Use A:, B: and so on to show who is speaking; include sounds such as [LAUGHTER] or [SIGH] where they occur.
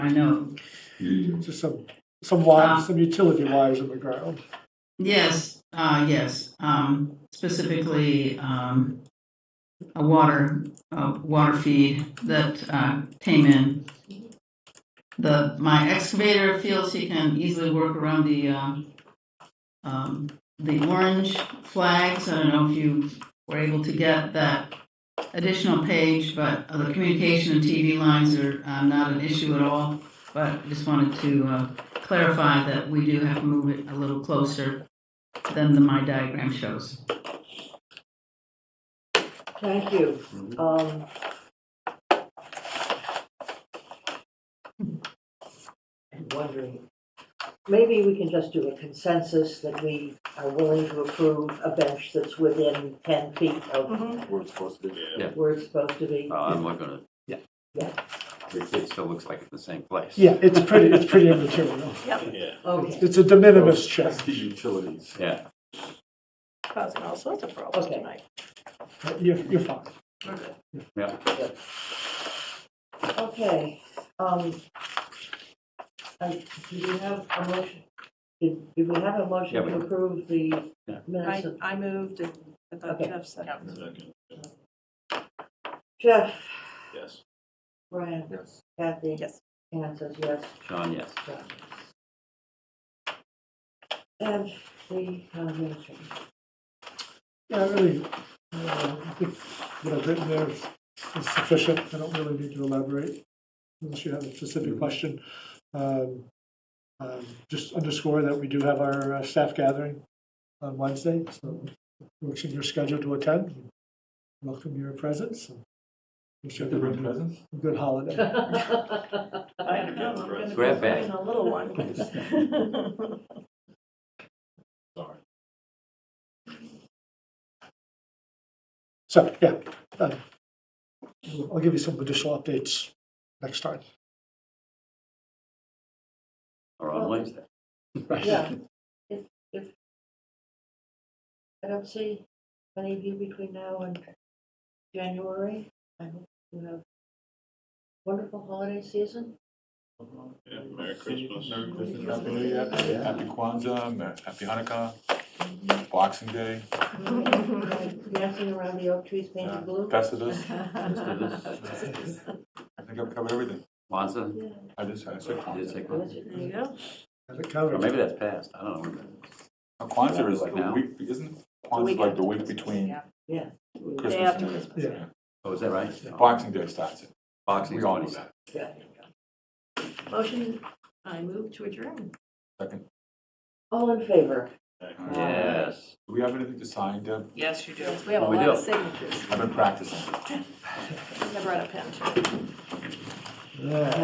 A: I know.
B: Just some, some wires,
A: Uh.
B: some utility wires in the ground.
A: Yes, uh, yes, um, specifically, um, a water, a water feed that, uh, came in. The, my excavator feels he can easily work around the, um, um, the orange flags. I don't know if you were able to get that additional page, but uh, the communication and TV lines are, uh, not an issue at all. But just wanted to, uh, clarify that we do have to move it a little closer than the, my diagram shows.
C: Thank you.
D: Mm-hmm.
C: Um, I'm wondering, maybe we can just do a consensus that we are willing to approve a bench that's within ten feet of
E: We're supposed to be.
C: where it's supposed to be.
D: Well, Oh, I'm not gonna.
F: Yeah.
C: Yeah.
D: It, it still looks like it's the same place.
B: Yeah, it's pretty, it's pretty immaterial.
E: Yeah.
C: Okay,
B: It's a de minimis check.
E: That's the utilities.
D: Yeah,
G: causing all sorts of problems
C: Okay.
G: tonight.
B: You're, you're fine.
C: okay. Um, I- do you have a motion? Did, did we have a motion
D: Yeah, we-
C: to approve the
D: Yeah.
C: minutes
G: I,
C: of?
G: I moved and I thought
C: Okay.
G: Jeff said.
C: Jeff,
E: Yes.
C: Brian,
E: Yes.
C: Kathy,
G: Yes.
C: Anne says yes.
D: John, yes.
C: And the town administrator.
B: Yeah, I really, uh, I think what I've written there is is sufficient. I don't really need to elaborate unless you have a specific question. Um, um, Just underscore that we do have our uh, staff gathering on Wednesday, so works in your schedule to attend. Welcome your presence. and Wish everyone a
E: presents?
B: good holiday.
G: I don't know, I'm gonna be
D: Grab bag.
G: bringing A little
E: [LAUGHS]
G: one.
E: Sorry.
B: So, yeah, um, I'll give you some additional updates next time.
D: Or
F: [LAUGHS]
D: on Wednesday. [LAUGHS]
C: Yeah. If, if, I don't see any of you between now and January. I hope you have wonderful holiday season.
E: Merry Christmas. Merry Christmas. Happy New Year. Happy Kwanzaa, Mer- happy Hanukkah, Boxing Day,
C: Dancing around the oak trees
E: uh,
C: painted blue.
E: Festivus.
D: Festivus.
E: I think I've covered everything.
D: Kwanzaa,
C: Yeah.
E: I just, I said
D: I did say
E: Kwanzaa.
D: Kwanzaa.
G: There you go.
B: Have it
D: Or
B: covered.
D: maybe that's past, I don't know.
E: Uh, Kwanzaa is
D: Like
E: the
D: now.
E: week, isn't Kwanzaa like the week between
C: Yeah.
G: Day
E: Christmas
G: after
E: and
G: Christmas.
B: Yeah.
D: Oh, is that right?
E: Boxing Day starts it.
D: Boxing,
E: We all know
D: twenty.
E: that.
C: Yeah.
G: Motion, I move to adjourn.
E: Second.
C: All in favor?
D: Yes.
E: Do we have anything to sign, Deb?
G: Yes, you do. We have a
D: Oh, we
G: lot of
D: do.
G: signatures.
E: I've been practicing.
G: I brought a pen too.
B: Yeah.